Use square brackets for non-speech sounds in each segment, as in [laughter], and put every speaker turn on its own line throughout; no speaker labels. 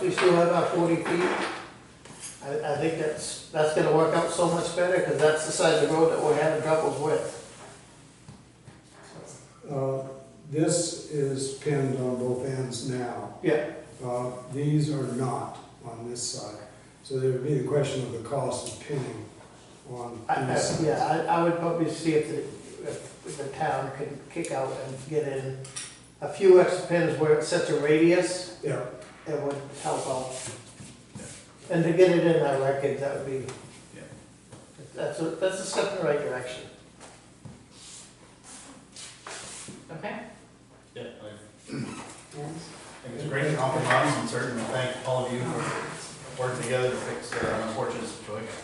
we still have our forty feet. I, I think that's, that's gonna work out so much better, because that's the side of the road that we're having troubles with.
Uh, This is pinned on both ends now.
Yeah.
Uh, These are not on this side. So there would be the question of the cost of pinning on
I,
these
I,
sides.
yeah, I, I would probably see if the, if the town could kick out and get in a few extra pins where it's such a radius,
Yeah,
it would help out. And to get it in our record, that would be.
Yeah.
That's a, that's a step in the right direction.
Okay.
Yeah, I think it's a great compromise and certainly thank all of you for working together to fix uh, an unfortunate situation.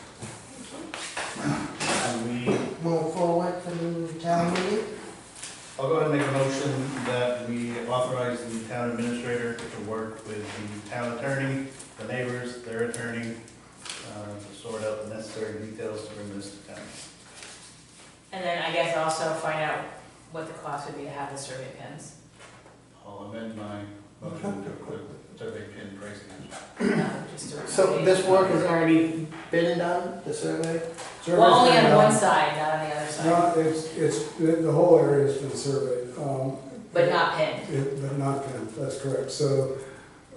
And we,
move forward for the town meeting.
I'll go ahead and make a motion that we authorize the town administrator to work with the town attorney, the neighbors, their attorney, uh, to sort out the necessary details to bring this to town.
And then I guess also find out what the cost would be to have the survey pins.
[clears throat]
I'll amend my motion to put survey pin pricing.
No, um, just to-
So this work has already been done, the survey?
Well, only on
uh,
one side, not on the other side,
No, it's, it's, the the whole area has been surveyed. um,
but not pinned.
It- But not pinned, that's correct. So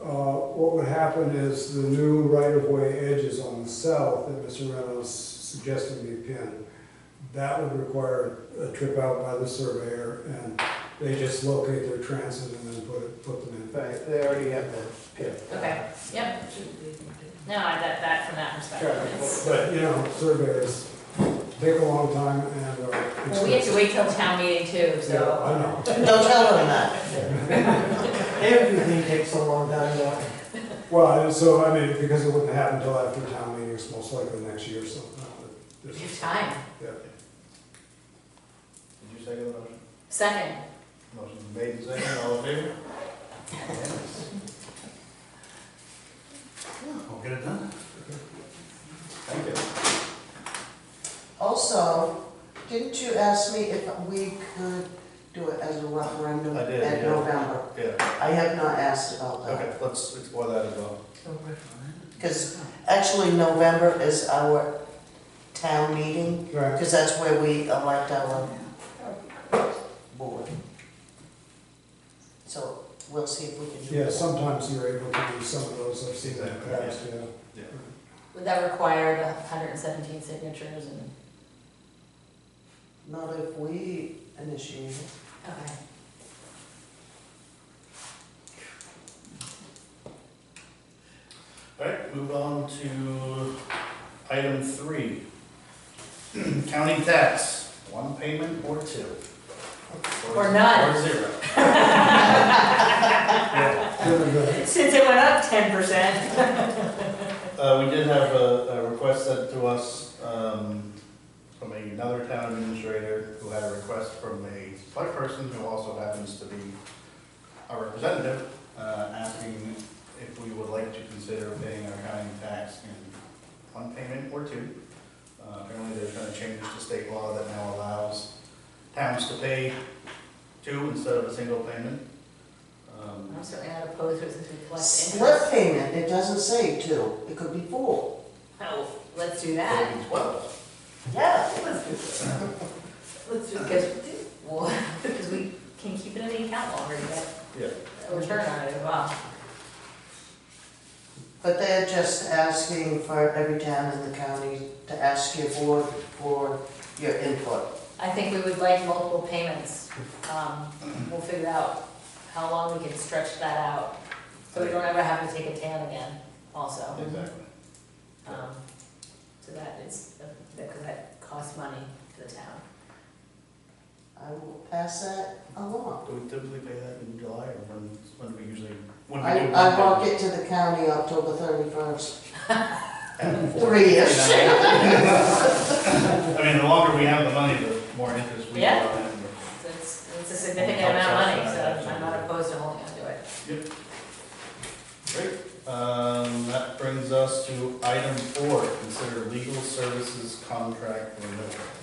uh, what would happen is the new right-of-way edges on the south that Mr. Reynolds suggested be pinned, that would require a trip out by the surveyor, and they just locate their transit and then put it, put them in.
Right, they already have the pin.
Okay, yep. No, I, that, that, from that
Sure.
perspective, it's,
But, you know, surveyors take a long time and are
well, we have to
expensive.
wait till town meeting too,
Yeah,
so.
I know.
Don't tell them that.
[laughs] Everything takes a long time now.
Well, and so, I mean, because it wouldn't happen until after town meetings, most likely next year or something.
We have time.
Yeah.
Did you second the motion?
Second,
Motion made and seconded, all in favor? Yes. We'll get it done. Thank you.
Also, didn't you ask me if we could do it as a referendum
I did,
at
yeah.
November?
Yeah,
I have not asked about that.
okay, let's explore that as well.
Because actually, November is our town meeting,
Right.
because that's where we elect our board. So we'll see if we can do that.
Yeah, sometimes you're able to do some of those, I've seen that in the past, yeah.
would that require the hundred and seventeen signatures and,
Not if we initiate it.
okay.
All right, move on to item three. [clears throat] County tax, one payment or two.
Or none.
Or zero.
Good and bad.
Since it went up ten percent.
Uh, we did have a, a request sent to us, um, from another town administrator who had a request from a select person who also happens to be our representative, uh, asking if we would like to consider paying our county tax in one payment or two. Uh, apparently there's been a change to state law that now allows towns to pay two instead of a single payment. Um,
I'm certainly not opposed to it since we collect interest.
Split payment, it doesn't say two, it could be four.
Oh, let's do
so it'd
that.
be Twelve.
Yeah.
Let's do that. Let's do, because, well, [laughs] because we can keep it in the account longer, and get
Yeah.
a return on it as well.
But they're just asking for every town in the county to ask your board for your input.
I think we would like multiple payments. Um, we'll figure out how long we can stretch that out, so we don't ever have to take a tan again also.
Exactly.
Um, So that is, because that costs money to the town.
I will pass that along.
Do we typically pay that in July or when, when do we usually? when we
I,
do-
I walk it to the county October thirty-first,
At four.
three-ish.
[laughs] I mean, the longer we have the money, the more interest we
Yeah.
have. and-
So It's, it's a significant amount of money, so I'm not opposed to holding on to it.
Great, um, that brings us to item four, consider legal services contract renewal. [clears throat]